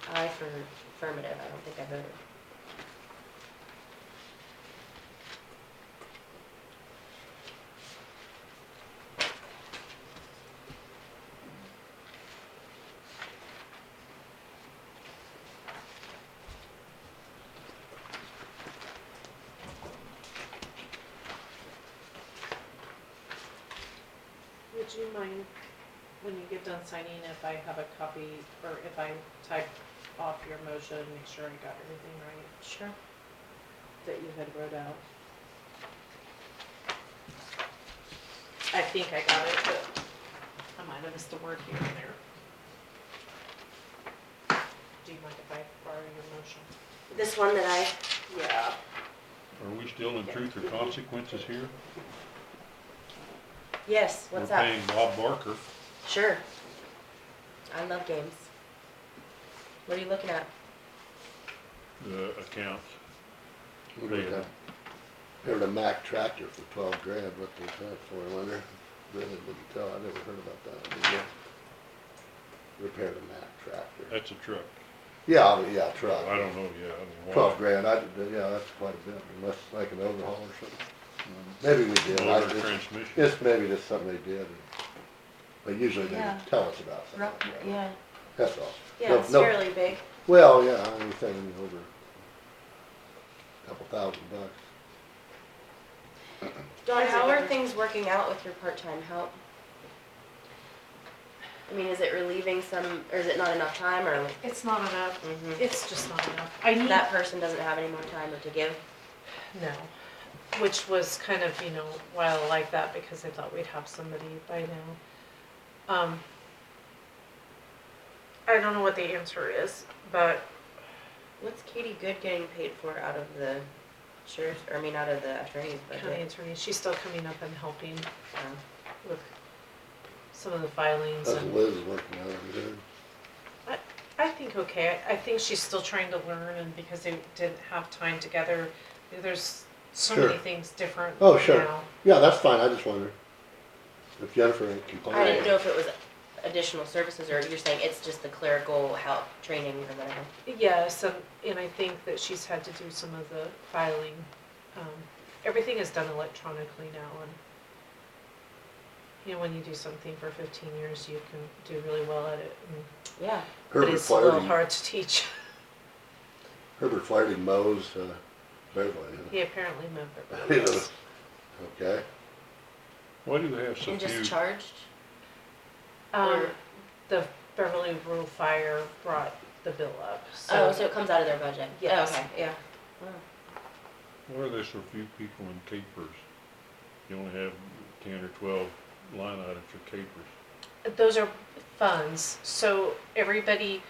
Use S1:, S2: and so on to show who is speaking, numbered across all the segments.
S1: for affirmative, I don't think I voted.
S2: Would you mind, when you get done signing, if I have a copy, or if I type off your motion, make sure I got everything right
S1: Sure.
S2: that you had wrote out? I think I got it, but I might have missed a word here and there. Do you mind if I borrow your motion?
S1: This one that I,
S2: Yeah.
S3: Are we still in truth or consequences here?
S1: yes, what's
S3: We're
S1: up?
S3: paying Bob Barker.
S1: Sure. I love games. What are you looking at?
S3: the accounts.
S4: Remember that- remember the Mack tractor for twelve grand, what they had for, I wonder? Really didn't tell, I never heard about that. Did you? Repair the Mack tractor.
S3: That's a truck.
S4: Yeah, I mean, yeah,
S3: Uh, I
S4: truck.
S3: don't know, yeah, I mean, why?
S4: Twelve grand, I, did- yeah, that's quite a bit, unless like an overhaul or something. Maybe we did. I
S3: Mm. Motor
S4: just-
S3: transmission.
S4: It's maybe just something they did. But usually they
S1: Yeah.
S4: tell us about something. like that.
S1: Yeah,
S4: That's all.
S1: yeah,
S4: No-
S1: it's
S4: no-
S1: fairly big.
S4: Well, yeah, anything over a couple thousand bucks.
S1: Dawn,
S2: Is it
S1: how are
S2: better?
S1: things working out with your part-time help? I mean, is it relieving some, or is it not enough time, or?
S2: It's not enough.
S1: Mhm.
S2: It's just not enough. I need.
S1: That person doesn't have any more time to give?
S2: No, which was kind of, you know, why I like that because I thought we'd have somebody by now. Um, I don't know what the answer is, but
S1: What's Katie Good getting paid for out of the sheriff's, or I mean, out of the attorney's
S2: county
S1: budget?
S2: attorney, she's still coming up and helping
S1: Um,
S2: with some of the filings
S4: That's
S2: and
S4: Liz working on it, dude.
S2: I think okay. I I think she's still trying to learn and because they didn't have time together, there's so many
S4: Sure.
S2: things different
S4: Oh, sure.
S2: now.
S4: Yeah, that's fine, I just wondered if Jennifer ain't
S1: I didn't know
S4: complaining.
S1: if it was additional services, or you're saying it's just the clerical help, training or whatever.
S2: Yes, and, and I think that she's had to do some of the filing. Um, everything is done electronically now and, you know, when you do something for fifteen years, you can do really well at it. and-
S1: Yeah,
S2: But
S4: Herbert
S2: it's a little
S4: Flaherty,
S2: hard to teach.
S4: Herbert Flaherty mows, uh, Beverly,
S2: He apparently remembered.
S4: huh? You know, Okay,
S3: Why do they have so
S1: and just
S3: few,
S1: charged?
S2: Um,
S1: Or-
S2: the Beverly Rural Fire brought the bill up,
S1: Oh,
S2: so.
S1: so it comes out of their budget? Yeah.
S2: Yes.
S1: Okay, yeah. Wow.
S3: why are there so few people in capers? You only have ten or twelve line items for capers.
S2: Those are funds, so everybody,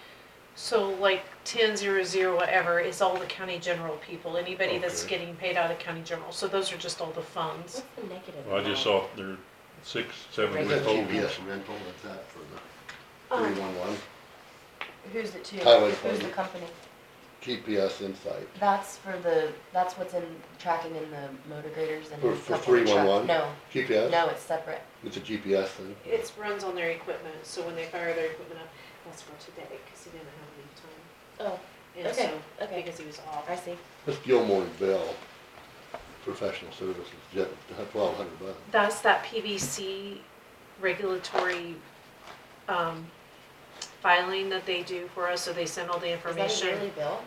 S2: so like ten zero zero whatever is all the county general people, anybody that's
S3: Okay.
S2: getting paid out of county general, so those are just all the funds.
S1: What's the negative?
S3: Well, I just
S1: amount?
S3: saw there are six, seven
S1: Right.
S4: that's
S3: withholdings.
S4: GPS rental, that's that for the
S2: Um,
S4: three-one-one,
S1: Who's it to?
S4: Highway
S1: Who's the
S4: Department.
S1: company?
S4: GPS insight.
S1: That's for the, that's what's in tracking in the motor graders and.
S4: For-
S1: the
S4: for
S1: company truck.
S4: 311?
S1: No,
S4: GPS,
S1: no, it's separate.
S4: it's a GPS thing.
S2: It's runs on their equipment, so when they fire their equipment up, that's for today, cause he didn't have leave time.
S1: Oh,
S2: And
S1: Okay,
S2: so,
S1: okay.
S2: Because he was off.
S1: I see.
S4: It's Gilmore and Bell, professional services, twelve hundred bucks.
S2: That's that PVC regulatory, um, filing that they do for us, so they send all the
S1: Is that a
S2: information.
S1: yearly bill?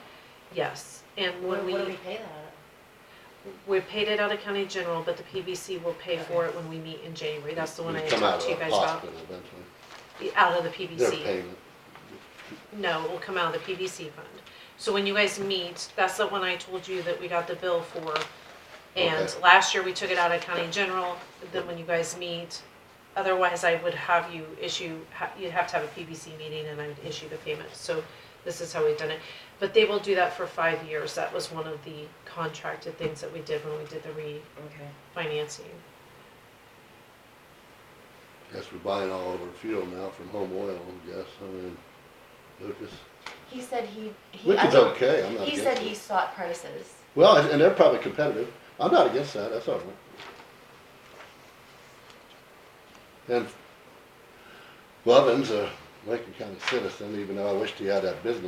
S2: Yes, and
S1: What
S2: when
S1: what
S2: we.
S1: do we pay that out
S2: We paid it out of county general, but the PVC will pay for it when we meet in January, that's the one I
S4: It'd
S2: had
S4: come out
S2: talked to you
S4: of the
S2: guys about.
S4: hospital eventually.
S2: The- Out of the
S4: Their
S2: PVC,
S4: payment,
S2: no, it will come out of the PVC fund. So when you guys meet, that's the one I told you that we got the bill for. And
S4: Okay.
S2: last year, we took it out of county general, then when you guys meet, otherwise I would have you issue, ha- you'd have to have a PVC meeting and I would issue the payment, so this is how we've done it. But they will do that for five years, that was one of the contracted things that we did when we did the re-
S1: of? Okay.
S2: financing.
S4: guess we're buying all of our fuel now from home oil, I guess, I mean, Lucas.
S1: He said he, he.
S4: Which
S1: I
S4: is
S1: don't-
S4: okay, I'm not
S1: He
S4: against
S1: said he
S4: it.
S1: sought prices.
S4: Well, and and they're probably competitive. I'm not against that, that's all right. And Lovin's a Lincoln County citizen, even though I wished he had that business